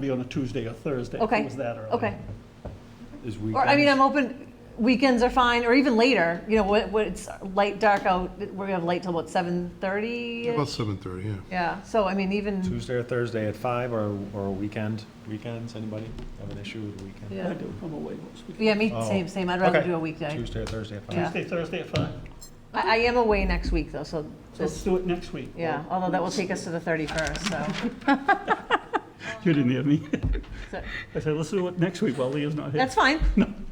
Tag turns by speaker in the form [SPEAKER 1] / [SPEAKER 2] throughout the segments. [SPEAKER 1] be on a Tuesday or Thursday. if it
[SPEAKER 2] Okay.
[SPEAKER 1] was that early.
[SPEAKER 2] Okay.
[SPEAKER 3] Is
[SPEAKER 2] Or, I mean,
[SPEAKER 3] weekends-
[SPEAKER 2] I'm open, weekends are fine, or even later, you know, what, what, it's light, dark out, we're gonna have light till what, seven thirty?
[SPEAKER 4] About 7:30, yeah.
[SPEAKER 2] Yeah, so I mean, even,
[SPEAKER 3] Tuesday or Thursday at five or, or a weekend, weekends, anybody have an issue with the weekend?
[SPEAKER 1] I
[SPEAKER 2] yeah,
[SPEAKER 1] do, I'm away most weekends.
[SPEAKER 2] yeah, me,
[SPEAKER 3] Oh.
[SPEAKER 2] same, same, I'd rather
[SPEAKER 3] Okay.
[SPEAKER 2] do a weekday.
[SPEAKER 3] Tuesday or Thursday at five?
[SPEAKER 2] Yeah.
[SPEAKER 1] Tuesday, Thursday at five.
[SPEAKER 2] I, I am away next week though, so
[SPEAKER 1] So let's
[SPEAKER 2] this,
[SPEAKER 1] do it next week.
[SPEAKER 2] yeah, although that will take us to the thirty-first, so.
[SPEAKER 1] You didn't hear me.
[SPEAKER 2] so-
[SPEAKER 1] I said, let's do it next week while Leah's not here.
[SPEAKER 2] That's fine.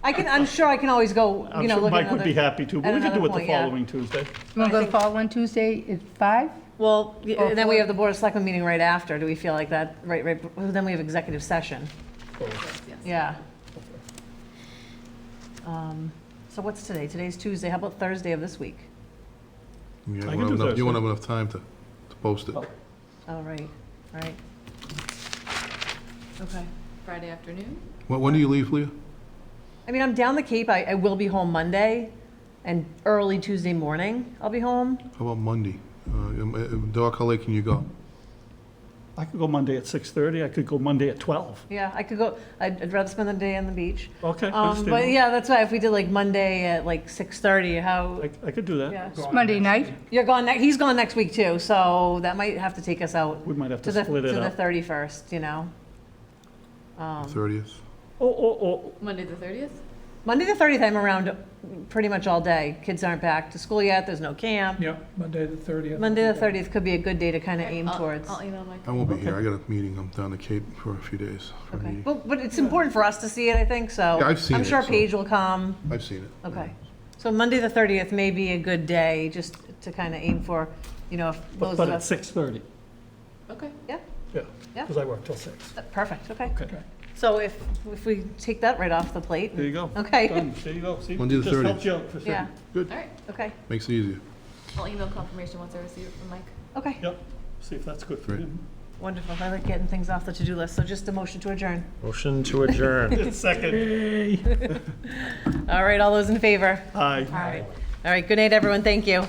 [SPEAKER 2] I can, I'm sure I can always go,
[SPEAKER 1] I'm
[SPEAKER 2] you know,
[SPEAKER 1] sure
[SPEAKER 2] look at
[SPEAKER 1] Mike would be
[SPEAKER 2] another.
[SPEAKER 1] happy to, but
[SPEAKER 2] at
[SPEAKER 1] we could
[SPEAKER 2] another
[SPEAKER 1] do it the
[SPEAKER 2] point, yeah.
[SPEAKER 1] following Tuesday.
[SPEAKER 5] You want to
[SPEAKER 2] I
[SPEAKER 5] go to
[SPEAKER 2] think-
[SPEAKER 5] fall on Tuesday at five?
[SPEAKER 2] Well, y-
[SPEAKER 5] Or
[SPEAKER 2] and then we
[SPEAKER 5] four.
[SPEAKER 2] have the Board of Selectmen meeting right after, do we feel like that, right, right, then we have executive session, yeah. Um, So what's today? Today's Tuesday, how about Thursday of this week?
[SPEAKER 4] You
[SPEAKER 1] I can
[SPEAKER 4] won't
[SPEAKER 1] do
[SPEAKER 4] have enough-
[SPEAKER 1] Thursday.
[SPEAKER 4] you won't have enough time to, to post it.
[SPEAKER 1] Oh.
[SPEAKER 2] Oh, right, right. Okay.
[SPEAKER 6] Friday afternoon?
[SPEAKER 4] When, when do you leave, Leah?
[SPEAKER 2] I mean, I'm down the Cape, I, I will be home Monday and early Tuesday morning, I'll be home.
[SPEAKER 4] How about Monday? Uh, um, uh, Doc, how late can you go?
[SPEAKER 1] I could go Monday at six-thirty, I could go Monday at twelve.
[SPEAKER 2] Yeah, I could go, I'd I'd rather spend the day on the beach.
[SPEAKER 1] Okay, I
[SPEAKER 2] Um, but
[SPEAKER 1] understand.
[SPEAKER 2] yeah, that's why if we did like Monday at like six thirty, how?
[SPEAKER 1] I, I could do that.
[SPEAKER 2] Yeah,
[SPEAKER 5] It's Monday night.
[SPEAKER 2] you're gone. Ne- he's gone next week too, so that might have to take us out
[SPEAKER 1] We might have
[SPEAKER 2] to
[SPEAKER 1] to
[SPEAKER 2] the
[SPEAKER 1] split
[SPEAKER 2] to
[SPEAKER 1] it
[SPEAKER 2] the
[SPEAKER 1] up.
[SPEAKER 2] thirty first. You know, Um,
[SPEAKER 4] 30th?
[SPEAKER 1] Oh, oh, oh,
[SPEAKER 6] Monday the 30th?
[SPEAKER 2] Monday the thirtieth, I'm around pretty much all day. Kids aren't back to school yet. There's no camp.
[SPEAKER 7] Yeah, Monday the 30th.
[SPEAKER 2] Monday the thirtieth could be a good day to kind of aim
[SPEAKER 6] I'll-
[SPEAKER 2] towards.
[SPEAKER 6] I'll email Mike.
[SPEAKER 4] I won't be here. I got a meeting. I'm down the Cape for a few days. for a
[SPEAKER 2] okay,
[SPEAKER 4] meeting.
[SPEAKER 2] but, but it's important for us to see it. I think so.
[SPEAKER 4] Yeah, I've seen
[SPEAKER 2] I'm
[SPEAKER 4] it,
[SPEAKER 2] sure
[SPEAKER 4] so-
[SPEAKER 2] Paige will come.
[SPEAKER 4] I've seen it.
[SPEAKER 2] Okay. So Monday the thirtieth may be a good day just to kind of aim for. You know, if
[SPEAKER 1] but
[SPEAKER 2] those
[SPEAKER 1] but
[SPEAKER 2] of
[SPEAKER 1] at
[SPEAKER 2] us.
[SPEAKER 1] six-thirty,
[SPEAKER 6] Okay.
[SPEAKER 2] Yeah.
[SPEAKER 1] yeah.
[SPEAKER 2] Yeah.
[SPEAKER 1] Because I work till six.
[SPEAKER 2] uh, Perfect. Okay.
[SPEAKER 1] Okay,
[SPEAKER 2] So if, if we take that right off the plate,
[SPEAKER 1] there you go.
[SPEAKER 2] okay,
[SPEAKER 1] Done. There you go, see?
[SPEAKER 4] Monday the
[SPEAKER 1] Just
[SPEAKER 4] 30th.
[SPEAKER 1] helped you out for sure.
[SPEAKER 2] yeah,
[SPEAKER 6] All right.
[SPEAKER 2] okay,
[SPEAKER 4] Makes it easier.
[SPEAKER 6] I'll email confirmation once I receive it from Mike.
[SPEAKER 2] okay.
[SPEAKER 1] Yep, see if that's good for
[SPEAKER 4] Right.
[SPEAKER 1] him.
[SPEAKER 2] Wonderful, I like getting things off the to-do list, so just a motion to adjourn.
[SPEAKER 3] Motion to adjourn.
[SPEAKER 1] Second,
[SPEAKER 2] All right, all those in favor?
[SPEAKER 1] aye.
[SPEAKER 2] All right, good night, everyone, thank you.